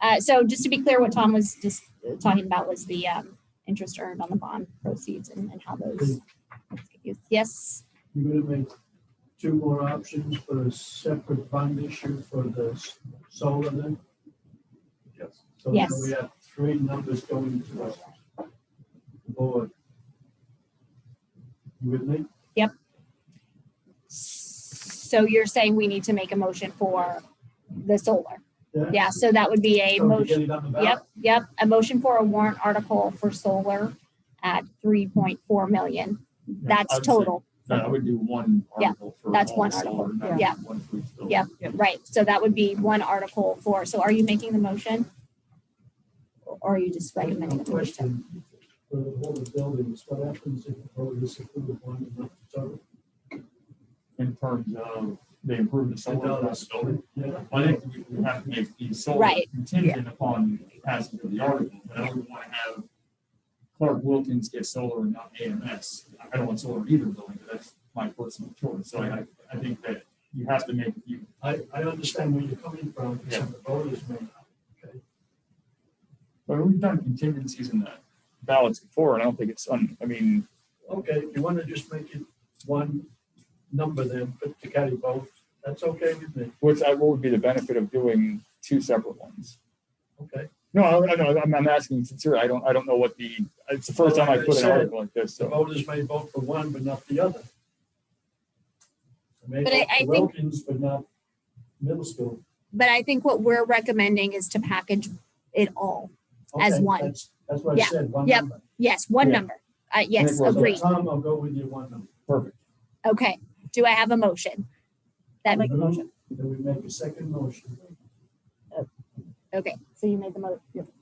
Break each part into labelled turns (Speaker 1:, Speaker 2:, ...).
Speaker 1: Uh, so just to be clear, what Tom was just talking about was the um, interest earned on the bond proceeds and, and how those. Yes,
Speaker 2: You're gonna make two more options for a separate fund issue for the s- solar then?
Speaker 3: Yes.
Speaker 2: So now
Speaker 1: Yes.
Speaker 2: we have three numbers going to us. Board. You with me?
Speaker 1: so you're saying we need to make a motion for the solar.
Speaker 2: Yeah.
Speaker 1: Yeah, so that would be a
Speaker 2: So we
Speaker 1: motion.
Speaker 2: get it on the ballot?
Speaker 1: Yep, yep. A motion for a warrant article for solar at three point four million. That's
Speaker 3: I would say-
Speaker 1: total,
Speaker 3: No, I would do one
Speaker 1: Yeah,
Speaker 3: article for.
Speaker 1: that's
Speaker 3: all
Speaker 1: one
Speaker 3: solar,
Speaker 1: article.
Speaker 3: not
Speaker 1: Yeah.
Speaker 3: One for each building.
Speaker 1: Yep. right? So that would be one article for, so are you making the motion? Or are you just recommending the motion?
Speaker 2: Question For the whole of buildings, what happens if the vote is approved one and not the other?
Speaker 3: In terms of the improvement solar across the building,
Speaker 2: Yeah.
Speaker 3: I think we would have to make the solar
Speaker 1: Right.
Speaker 3: contingent upon passing of the article, but I wouldn't want to have Clark Wilkins get solar and not AMS. I don't want solar in either building, but that's my personal choice. So I, I think that you have to make, you,
Speaker 2: I, I understand where you're coming from, because the vote is made. Okay.
Speaker 3: but we've done contingencies in the ballots before, and I don't think it's, un- I mean,
Speaker 2: Okay, you want to just make it one number then, but to carry both, that's okay with me,
Speaker 3: what's, what would be the benefit of doing two separate ones?
Speaker 2: okay?
Speaker 3: No, I, I know, I'm, I'm asking sincerely, I don't, I don't know what the, it's the first time I put an article like this,
Speaker 2: The
Speaker 3: so.
Speaker 2: voters may vote for one, but not the other. They may
Speaker 1: But I-
Speaker 2: vote for
Speaker 1: I think-
Speaker 2: Wilkins, but not middle school.
Speaker 1: But I think what we're recommending is to package it all. As
Speaker 2: Okay,
Speaker 1: one.
Speaker 2: That's that's what I
Speaker 1: Yeah,
Speaker 2: said, one
Speaker 1: yep,
Speaker 2: number.
Speaker 1: Yes, one
Speaker 3: Yeah.
Speaker 1: number. Uh, yes,
Speaker 3: we're-
Speaker 2: So,
Speaker 1: agreed.
Speaker 2: Tom, I'll go with you one number.
Speaker 3: Perfect.
Speaker 1: Okay, do I have a motion? That,
Speaker 2: Move That we make a second motion.
Speaker 1: okay, so you made the mo,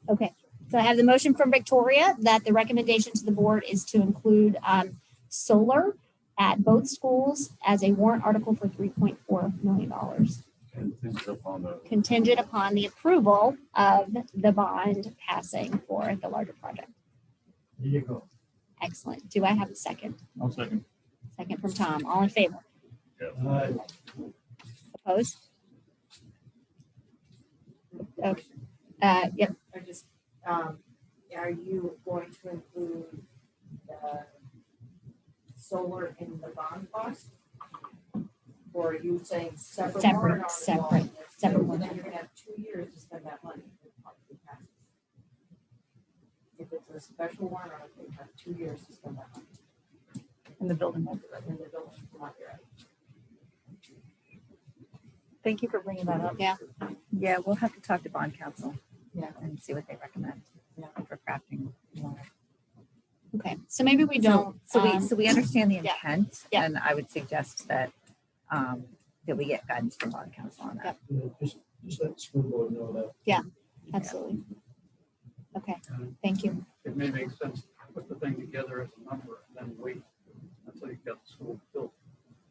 Speaker 1: okay. So I have the motion from Victoria that the recommendation to the board is to include, um, solar at both schools as a warrant article for three point four million dollars,
Speaker 4: Contingent upon the,
Speaker 1: contingent upon the approval of the bond passing for the larger project.
Speaker 2: There you go.
Speaker 1: Excellent. Do I have a second?
Speaker 3: I'll second.
Speaker 1: Second from Tom. All in favor?
Speaker 2: All right,
Speaker 1: Opposed? Okay. Uh, yep,
Speaker 5: Or just, um, are you going to include the solar in the bond cost? Or are you saying separate
Speaker 1: Separate,
Speaker 5: warrant article?
Speaker 1: separate, separate
Speaker 5: So Then
Speaker 1: warrant.
Speaker 5: you're gonna have two years to spend that money. if it possibly passes. If it's a special warrant article, you have two years to spend that money.
Speaker 6: in the building.
Speaker 5: And the building will not be ready.
Speaker 6: Thank you for bringing that up.
Speaker 1: Yeah.
Speaker 6: Yeah, we'll have to talk to bond council.
Speaker 5: Yeah.
Speaker 6: And see what they recommend.
Speaker 5: Yeah.
Speaker 6: For crafting. more.
Speaker 1: okay. So maybe we don't.
Speaker 6: So we,
Speaker 1: um,
Speaker 6: so we understand the
Speaker 1: yeah.
Speaker 6: intent.
Speaker 1: Yeah.
Speaker 6: And I would suggest that, um, that we get guidance from bond council on that.
Speaker 2: yeah, just, just let the school board know that.
Speaker 1: Absolutely. Okay, thank you.
Speaker 7: it may make sense to put the thing together as a number and then wait until you've got the school built.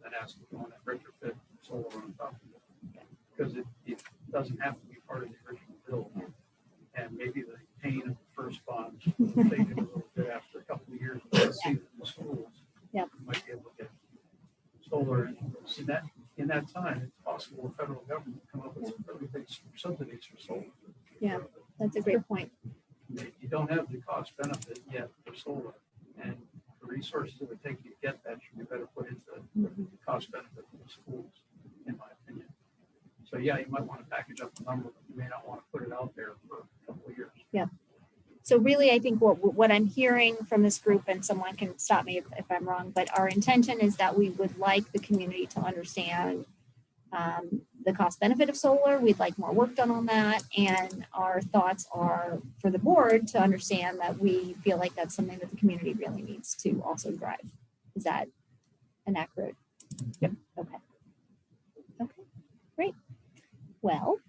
Speaker 7: Then ask if you want to retrofit solar on top of it. Because it, it doesn't have to be part of the original build. And maybe the pain of the first bond, will fade a little bit after a couple of years, but see it in the schools.
Speaker 1: Yep.
Speaker 7: you Might be able to get solar. in. See that, in that time, it's possible the federal government come up with some really big subsidies for solar.
Speaker 1: Yeah. That's a great point.
Speaker 7: that you don't have the cost benefit yet for solar. And the resources it would take you to get that should be better put into the cost benefit for the schools, in my opinion. So yeah, you might want to package up the number, but you may not want to put it out there for a couple of years.
Speaker 1: So really, I think what, what I'm hearing from this group, and someone can stop me if, if I'm wrong, but our intention is that we would like the community to understand um, the cost benefit of solar. We'd like more work done on that. And our thoughts are for the board to understand that we feel like that's something that the community really needs to also drive. Is that an accurate?
Speaker 6: Yep.
Speaker 1: Okay. Okay, great. Well,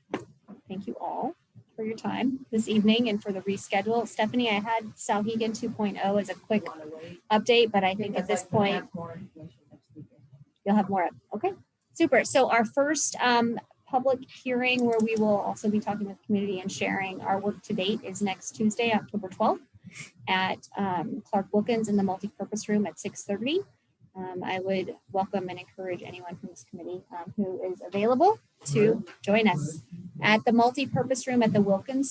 Speaker 1: thank you all for your time this evening and for the reschedule. Stephanie, I had Salhegan 2.0 as a quick
Speaker 5: You wanna wait?
Speaker 1: update, but I think
Speaker 5: Because
Speaker 1: at this
Speaker 5: I'm gonna
Speaker 1: point,
Speaker 5: have More information next weekend.
Speaker 1: you'll have more. Okay, super. So our first um, public hearing where we will also be talking with the community and sharing our work to date is next Tuesday, October 12th at um, Clark Wilkins in the multipurpose room at 6:30. Um, I would welcome and encourage anyone from this committee um, who is available to join us at the multipurpose room at the Wilkins